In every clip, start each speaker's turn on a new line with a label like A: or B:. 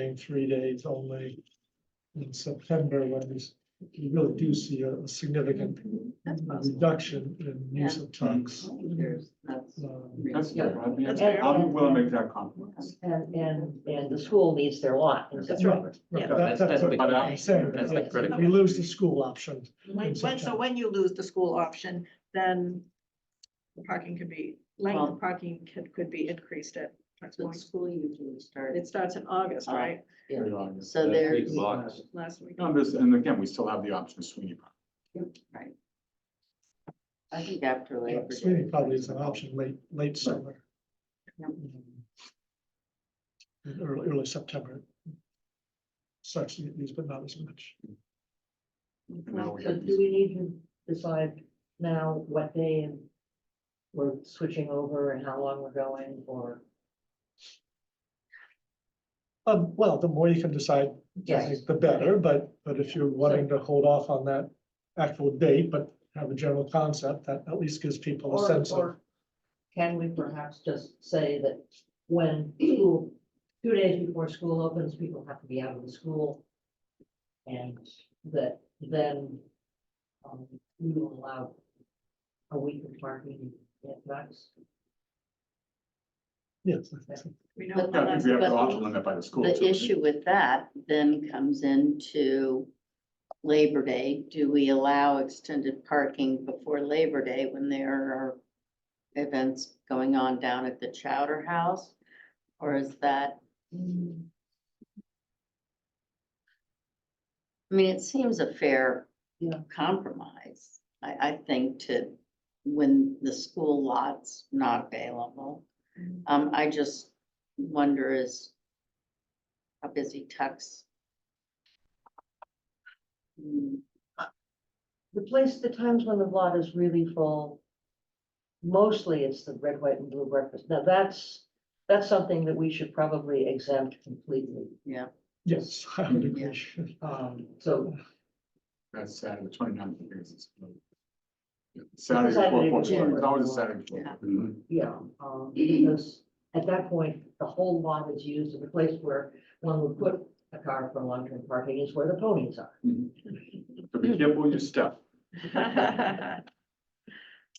A: in three days only in September, when we, s- we really do see a a significant
B: That's possible.
A: reduction in use of trucks.
B: There's-
C: Mm-hmm.
B: that's
A: Um,
D: That's, yeah,
B: reasonable.
D: I mean,
B: That's
D: I'll be
E: fair.
D: willing to make that compromise.
E: And, and, and the school needs their lot. in
B: That's
E: September.
B: right.
A: right,
B: Yeah.
A: that-
F: That's- that's
A: what
F: the-
D: uh,
A: I'm saying,
F: that's the
A: yes, if
F: critical-
A: We lose the school option.
B: When, when, so when you lose the school option, then the parking could be, length
E: Well-
B: of parking could, could be increased at. Trans
E: So the
B: Point.
E: school usually starts.
B: It starts in August,
E: Oh.
B: right?
E: Yeah.
F: That
E: So
F: week
E: there's,
F: of August.
B: Last week.
D: On this, and again, we still have the option of Sweeney. Park.
E: right. I think after
A: Yeah,
E: Labor Day.
A: Sweeney probably is an option late, late summer.
E: Yeah.
A: Um, in Early, early September. Such use, but not as much.
D: And now we
E: So
D: have
E: do
D: these-
E: we need to decide now what day and we're switching over and how long we're going or?
A: Um, well, the more you can decide, I
E: Yes,
A: think the better, but, but if you're wanting to hold off on that actual date, but have a general concept, that at least gives people a
E: Or-
A: sense of.
E: or Can we perhaps just say that when school, two days before school opens, people have to be out of the school? And that then um, we will allow a week of parking at max.
A: Yes. I think so.
B: We
C: But
B: know
C: the
D: Yeah, I think we have the
C: but-
D: option limit by the school. too,
C: The
D: right?
C: issue with that then comes into Labor Day. Do we allow extended parking before Labor Day when there are events going on down at the Chowder House? Or is that? I mean, it seems a fair
E: Yeah.
C: compromise, I, I think, to, when the school lot's not available.
B: Mhm.
C: Um, I just wonder is how busy Tux. Hmm,
E: The place, the times when the lot is really full, mostly it's the red, white and blue breakfast. Now that's, that's something that we should probably exempt completely.
C: Yeah,
A: Yes, I would agree.
E: Um, so
D: That's Saturday, the 29th. I think it's- Yeah, Saturday before
E: Saturday
D: Fourth of July.
E: before.
D: It's always a Saturday before.
C: Yeah.
D: Mhm.
E: Yeah, um, because at that point, the whole lot is used as a place where one would put a car for long-term parking is where the ponies are.
D: Mm-hmm. So be careful with your step.
B: that.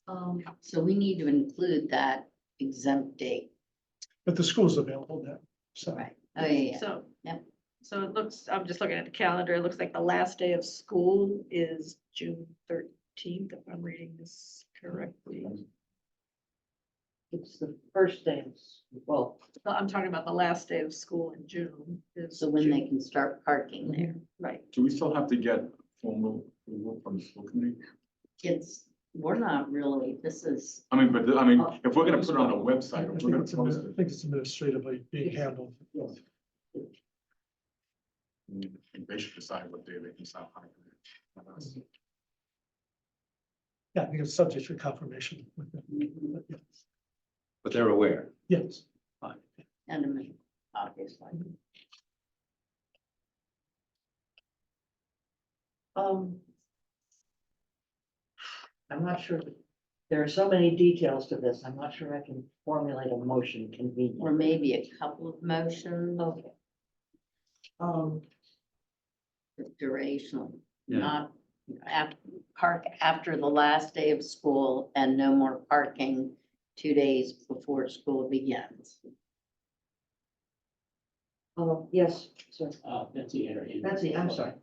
E: Um,
C: so we need to include that exempt date,
A: But the school's available now, so.
C: right? Oh, yeah, yeah.
B: So.
C: Yep.
B: So it looks, I'm just looking at the calendar, it looks like the last day of school is June thirteenth, if I'm reading this correctly.
C: Mm-hmm.
E: it's the first day, of s- well,
B: No, I'm talking about the last day of school in June is.
C: so when they
B: June-
C: can start parking there.
B: Right,
D: Do we still have to get formal approval from the school committee?
C: It's, we're not really, this is,
D: I mean, but, I mean, if we're gonna put it on a website,
A: I
D: if
A: think
D: we're gonna
A: it's admi-
D: post
A: I
D: it.
A: think it's administratively being handled.
D: They should decide what day they can stop. hiring.
A: Yeah, I think it's subject to confirmation.
F: But they're aware.
A: Yes,
C: end of May, obviously.
E: um. I'm not sure, there are so many details to this, I'm not sure I can formulate a motion
C: Or
E: conveniently.
C: maybe a couple of motions of
E: Okay. Um,
C: duration,
F: Yeah.
C: not af- park after the last day of school and no more parking two days before school begins.
E: oh, yes, sir,
G: Uh, Betsy had her hand.
E: Betsy, I'm sorry.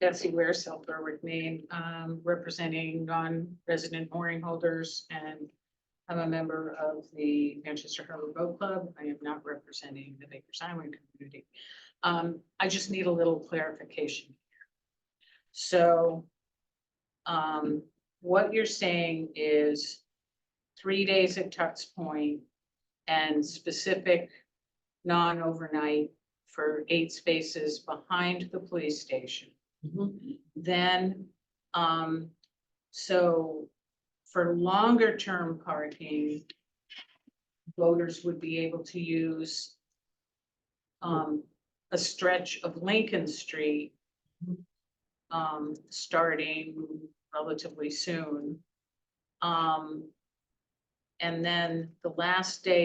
H: Betsy Ware, South Berwick, Maine, um, representing non-resident mooring holders and I'm a member of the Manchester Harbor Boat Club. I am not representing the Baker's Island community. Um, I just need a little clarification. here. So, um, what you're saying is three days at Tux Point and specific non-overnight for eight spaces behind the police station. Then, um, so for longer term parking, voters would be able to use um, a stretch of Lincoln Street um, starting relatively soon. Um, And then the last day